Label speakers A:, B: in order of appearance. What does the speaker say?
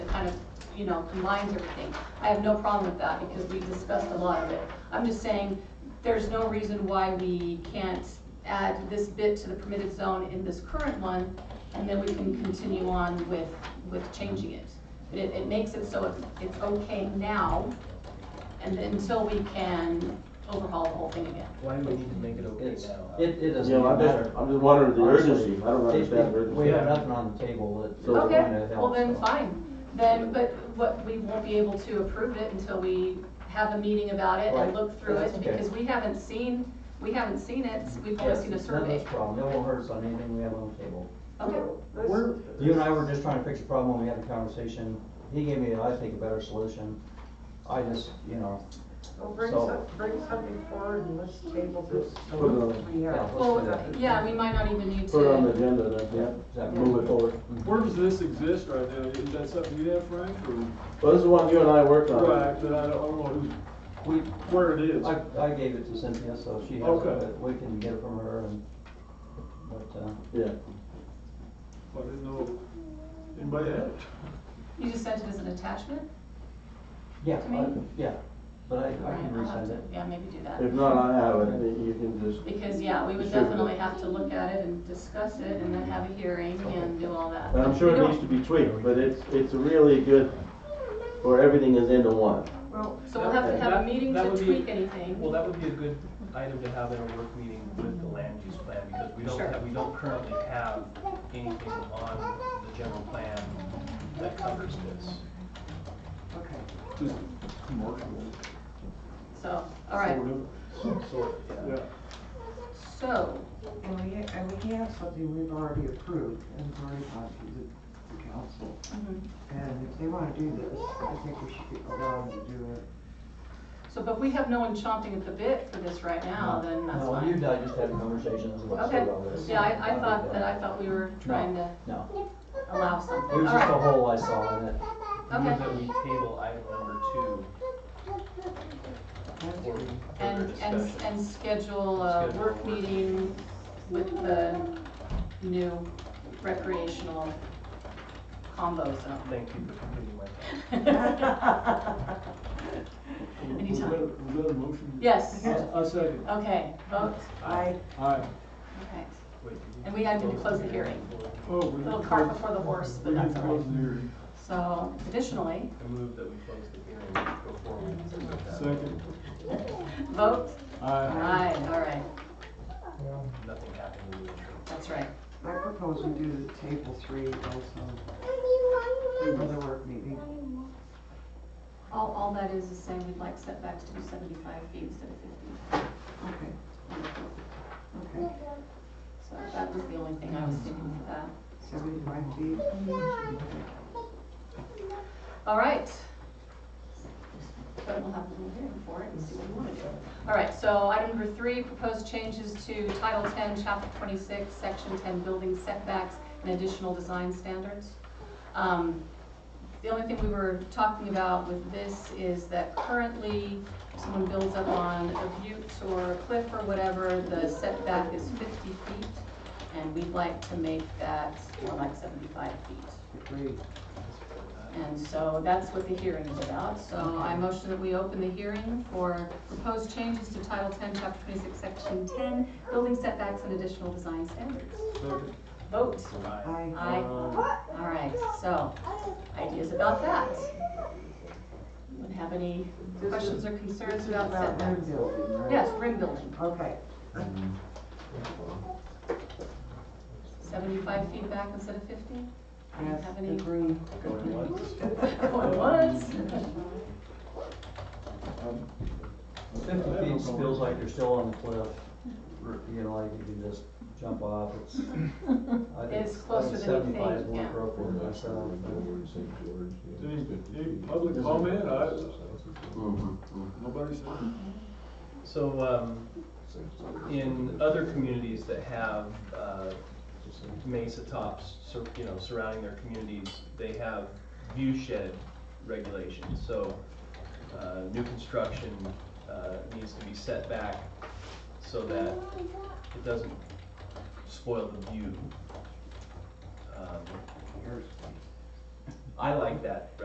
A: you know, combines everything. I have no problem with that because we discussed a lot of it. I'm just saying, there's no reason why we can't add this bit to the permitted zone in this current one, and then we can continue on with, with changing it. But it, it makes it so it's, it's okay now, and then until we can overhaul the whole thing again.
B: Why do we need to make it okay
C: It's,
B: now?
C: it, it doesn't
D: Yeah,
C: even
D: I'm
C: matter.
D: just, I'm just wondering the
C: Honestly,
D: urgency, I don't understand the urgency.
C: We have nothing on the table that.
D: So-
A: Okay,
C: that
A: well then,
C: helps.
A: fine. Then, but what, we won't be able to approve it until we have a meeting about it and
C: Right.
A: look through
C: That's
A: it,
C: okay.
A: because we haven't seen, we haven't seen it, we've only
C: Yes,
A: seen a
C: it's none of this
A: survey.
C: problem, it won't hurt us on anything we have on the table.
A: Okay,
C: We're, you and I were just trying to fix a problem, when we had a conversation, he gave me, I think, a better solution. I just, you know,
E: Well, bring
C: So-
E: some, bring something forward and let's table this.
D: Put it on-
E: We
C: Yeah,
E: have-
C: let's do
A: well,
C: that.
A: yeah, we might not even need
D: Put it on the
A: to,
D: agenda then,
C: is
D: yeah,
C: that
D: move it forward.
F: Where does this exist right now? Is that something you have, Frank, or?
D: Well, this is one you and I worked on.
F: Right, but I don't know who-
C: We,
F: where it is.
C: I, I gave it to Cynthia, so she has it,
F: Okay.
C: but we can get it from her and, but, uh,
D: Yeah,
F: I didn't know anybody had it.
A: you just sent it as an attachment?
C: yeah,
A: To me?
C: I- yeah, but I, I
A: Right,
C: can
A: I'll have
C: resend
A: to-
C: it.
A: Yeah, maybe do that.
D: if not, I have it, you can just,
A: Because, yeah, we would
D: Sure.
A: definitely have to look at it and discuss it and then have a hearing and do all that.
D: I'm sure
A: We
D: it
A: don't-
D: needs to be tweaked, but it's, it's really good, where everything is into one.
E: Well,
A: So we'll have to have a
B: That-
A: meeting
B: that
A: to
B: would be-
A: tweak anything.
B: Well, that would be a good item to have in a work meeting with the land use plan, because we don't
A: Sure.
B: have, we don't currently have anything on the general plan that covers this.
E: okay.
F: Just commercial.
A: So, all right,
B: So, yeah.
F: Yeah.
A: so,
E: And we, and we have something we've already approved and it's already gone through the, the council.
A: mhm.
E: And if they wanna do this, I think we should be allowed to do it.
A: So, but we have no one chomping at the bit for this right now, then that's
C: No, you and
A: fine.
C: I just had conversations about
A: Okay,
C: about this.
A: yeah, I, I thought that, I thought we were trying to
C: No,
A: allow
C: it
A: something,
C: was
A: all
C: just a
A: right.
C: hole I saw in it.
B: Move
A: Okay.
B: that we table item number two
E: That's
B: for
E: good.
B: further
A: And, and,
B: discussion.
A: and schedule a
B: Schedule a
A: work
B: work.
A: meeting with the new recreational combo zone.
B: Thank you for completing my.
A: Anytime.
F: Was that- was that a motion?
A: Yes,
F: I I second.
A: okay, vote,
E: I,
F: Aye.
A: okay.
B: Wait,
A: And we had to close the hearing.
F: Oh, we
A: Little
F: didn't
A: cart
F: close-
A: before the horse, but
F: we
A: that's
F: didn't
A: all right.
F: close the hearing.
A: So additionally,
B: I move that we close the hearing before we.
F: Second.
A: vote,
F: Aye.
A: aye, all right,
B: Nothing happened in the interim.
A: that's right.
E: I propose we do the table three also for the work meeting.
A: All, all that is is saying we'd like setbacks to be seventy-five feet instead of fifty.
E: Okay, okay.
A: So that was the only thing I was thinking for that.
E: Seventy-five feet.
A: All right. But we'll have a little hearing for it and see what we want to do. All right, so item number three, proposed changes to Title ten, Chapter twenty-six, Section ten, building setbacks and additional design standards. Um, The only thing we were talking about with this is that currently, if someone builds up on a butte or a cliff or whatever, the setback is fifty feet, and we'd like to make that more like seventy-five feet.
E: Agreed.
A: And so that's what the hearing is about. So I motion that we open the hearing for proposed changes to Title 10, Chapter 26, Section 10, Building Setbacks and Additional Design Standards.
F: Second.
A: Vote.
B: Aye.
E: I.
A: Aye. All right, so ideas about that? Anyone have any questions or concerns about
E: About land
A: setbacks?
E: building, right?
A: Yes, ring building,
E: Okay.
A: 75 feet back instead of 50?
E: Yes,
A: Have any-
E: agree.
B: Going once.
A: Going once?
C: Fifty feet feels like you're still on the cliff, you know, like you can just jump off, it's. I think-
A: It's closer
C: I think
A: than you
C: Seventy-five is
A: think,
C: more
A: yeah.
C: appropriate myself.
F: Any, any public comment? I,
D: Mm-hmm.
F: nobody said.
B: So, um, in other communities that have, uh, mesa tops, sur- you know, surrounding their communities, they have view shed regulations, so, uh, new construction, uh, needs to be set back so that it doesn't spoil the view. Um, I like that